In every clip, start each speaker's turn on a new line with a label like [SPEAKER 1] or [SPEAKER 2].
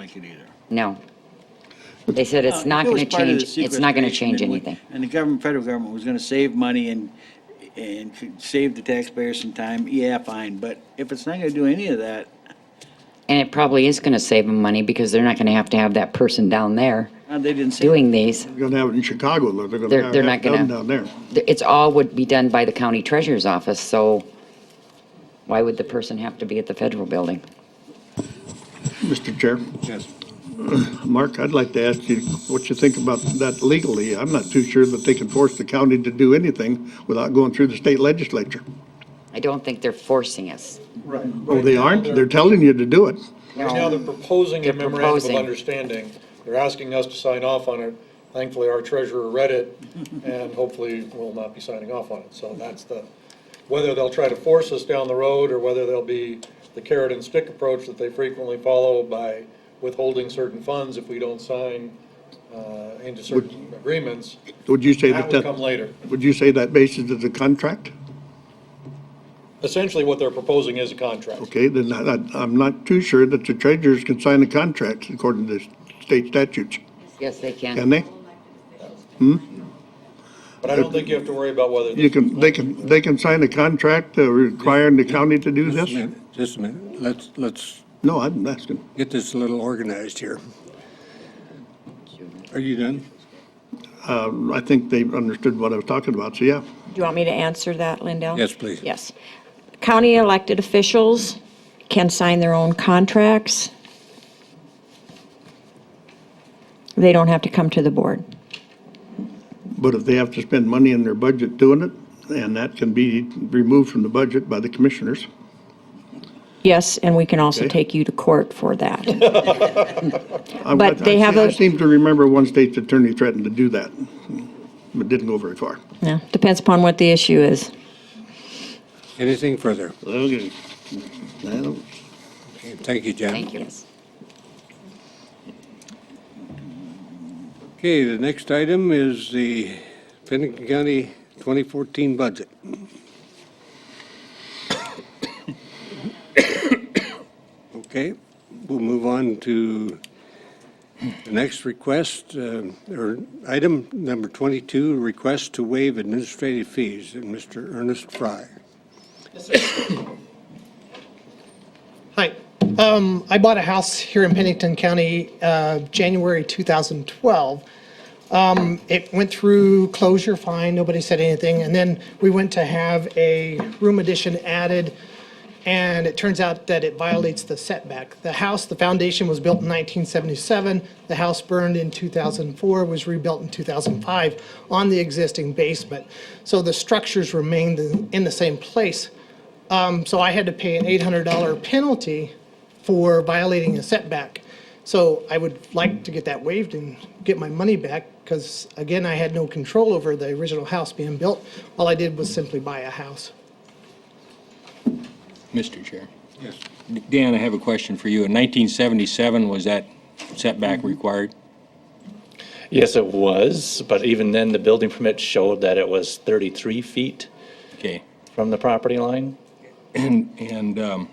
[SPEAKER 1] like it either.
[SPEAKER 2] No. They said it's not
[SPEAKER 1] Uh, It was
[SPEAKER 2] going to
[SPEAKER 1] part of the
[SPEAKER 2] change, it's not going to
[SPEAKER 1] sequestration
[SPEAKER 2] change
[SPEAKER 1] and we-
[SPEAKER 2] anything.
[SPEAKER 1] And the government, federal government was going to save money and, and could save the taxpayers some time, yeah, fine, but if it's not going to do any of that,
[SPEAKER 2] And it probably is going to save them money because they're not going to have to have that person down there
[SPEAKER 1] uh, they didn't say.
[SPEAKER 2] doing these.
[SPEAKER 3] They're gonna have it in Chicago, though. They're
[SPEAKER 2] They're-
[SPEAKER 3] gonna have
[SPEAKER 2] they're not
[SPEAKER 3] it done
[SPEAKER 2] gonna-
[SPEAKER 3] down there.
[SPEAKER 2] Th- It's all would be done by the county treasurer's office, so why would the person have to be at the federal building?
[SPEAKER 3] Mr. Chair,
[SPEAKER 1] Yes.
[SPEAKER 3] Mark, I'd like to ask you what you think about that legally. I'm not too sure that they can force the county to do anything without going through the state legislature.
[SPEAKER 2] I don't think they're forcing us.
[SPEAKER 4] Right.
[SPEAKER 3] Oh, they aren't? They're telling you to do it.
[SPEAKER 4] Right now, they're proposing
[SPEAKER 2] They're
[SPEAKER 4] a memorandum of
[SPEAKER 2] proposing.
[SPEAKER 4] understanding. They're asking us to sign off on it. Thankfully, our treasurer read it, and hopefully will not be signing off on it. So that's the, whether they'll try to force us down the road, or whether they'll be the carrot and stick approach that they frequently follow by withholding certain funds if we don't sign uh, into certain agreements,
[SPEAKER 3] Would you say
[SPEAKER 4] that
[SPEAKER 3] that
[SPEAKER 4] would come
[SPEAKER 3] that,
[SPEAKER 4] later.
[SPEAKER 3] would you say that basis is a contract?
[SPEAKER 4] Essentially, what they're proposing is a contract.
[SPEAKER 3] Okay, then I, I- I'm not too sure that the treasurers can sign a contract according to state statutes,
[SPEAKER 2] Yes, they
[SPEAKER 3] can
[SPEAKER 2] can.
[SPEAKER 3] they?
[SPEAKER 4] But I don't think you have to worry about whether.
[SPEAKER 3] You can, they can, they can sign a contract uh, requiring the county to do
[SPEAKER 5] Just a
[SPEAKER 3] this?
[SPEAKER 5] minute, Just a minute. Let's, let's
[SPEAKER 3] No, I'm asking.
[SPEAKER 5] get this a little organized here. Are you done?
[SPEAKER 3] I think they understood what I was talking about, so yeah.
[SPEAKER 6] Do you want me to answer that, Lindell?
[SPEAKER 5] Yes, please.
[SPEAKER 6] Yes. County elected officials can sign their own contracts. They don't have to come to the board.
[SPEAKER 3] But if they have to spend money in their budget doing it, and that can be removed from the budget by the commissioners.
[SPEAKER 6] Yes, and we can also
[SPEAKER 3] Okay.
[SPEAKER 6] take you to court for that.
[SPEAKER 3] I-
[SPEAKER 6] But they
[SPEAKER 3] I-
[SPEAKER 6] have
[SPEAKER 3] I
[SPEAKER 6] a-
[SPEAKER 3] seem to remember one state's attorney threatened to do that, but didn't go very far.
[SPEAKER 6] Yeah, Depends upon what the issue is.
[SPEAKER 5] Anything further?
[SPEAKER 3] Okay. Well,
[SPEAKER 5] Okay, Thank you, Jan.
[SPEAKER 2] Thank you.
[SPEAKER 5] Okay, the next item is the Pennington County 2014 budget. Okay, we'll move on to the next request, uh, or item number 22, request to waive administrative fees, and Mr. Ernest Fry.
[SPEAKER 7] Hi. Um, I bought a house here in Pennington County, uh, January 2012. Um, it went through closure, fine, nobody said anything, and then we went to have a room addition added, and it turns out that it violates the setback. The house, the foundation was built in 1977, the house burned in 2004, was rebuilt in 2005 on the existing basement. So the structures remained in- in the same place so I had to pay an $800 penalty for violating a setback. So I would like to get that waived and get my money back, because again, I had no control over the original house being built. All I did was simply buy a house.
[SPEAKER 8] Mr. Chair. Yes. Dan, I have a question for you. In 1977, was that setback required?
[SPEAKER 9] Yes, it was, but even then, the building permit showed that it was 33 feet
[SPEAKER 8] Okay.
[SPEAKER 9] from the property line.
[SPEAKER 8] And, um,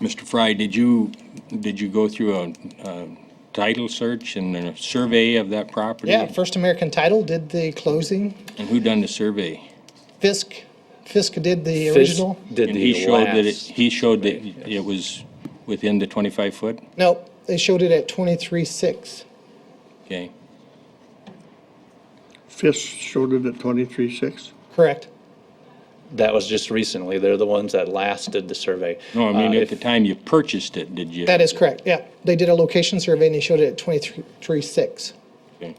[SPEAKER 8] Mr. Fry, did you, did you go through a a title search and a survey of that property?
[SPEAKER 7] Yeah, First American Title did the closing.
[SPEAKER 8] And who done the survey?
[SPEAKER 7] Fisk, Fisk did the
[SPEAKER 9] Fisk
[SPEAKER 7] original.
[SPEAKER 9] Did
[SPEAKER 8] And he
[SPEAKER 9] the
[SPEAKER 8] showed that it-
[SPEAKER 9] last.
[SPEAKER 8] He showed that it was within the 25-foot?
[SPEAKER 7] Nope, they showed it at 23.6.
[SPEAKER 8] Okay.
[SPEAKER 3] Fisk showed it at twenty-three-six.
[SPEAKER 7] Correct.
[SPEAKER 9] That was just recently. They're the ones that last did the survey.
[SPEAKER 8] No, I mean,
[SPEAKER 9] Uh,
[SPEAKER 8] at
[SPEAKER 9] if-
[SPEAKER 8] the time you purchased it, did you?
[SPEAKER 7] That is correct, yeah. They did a location survey and they showed it at 23.6.
[SPEAKER 8] Okay.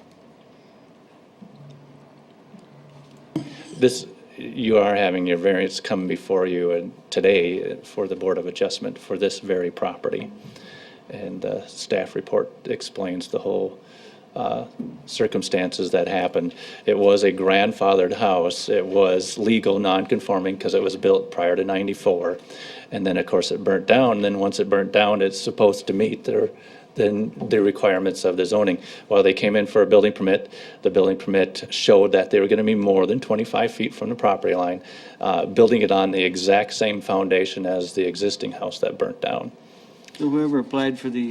[SPEAKER 9] This, you are having your variance come before you uh, today for the Board of Adjustment for this very property. And the staff report explains the whole uh, circumstances that happened. It was a grandfathered house. It was legal, non-conforming, because it was built prior to 94. And then, of course, it burnt down. Then, once it burnt down, it's supposed to meet their, then the requirements of the zoning. While they came in for a building permit, the building permit showed that they were going to be more than 25 feet from the property line, uh, building it on the exact same foundation as the existing house that burnt down.
[SPEAKER 1] So whoever applied for the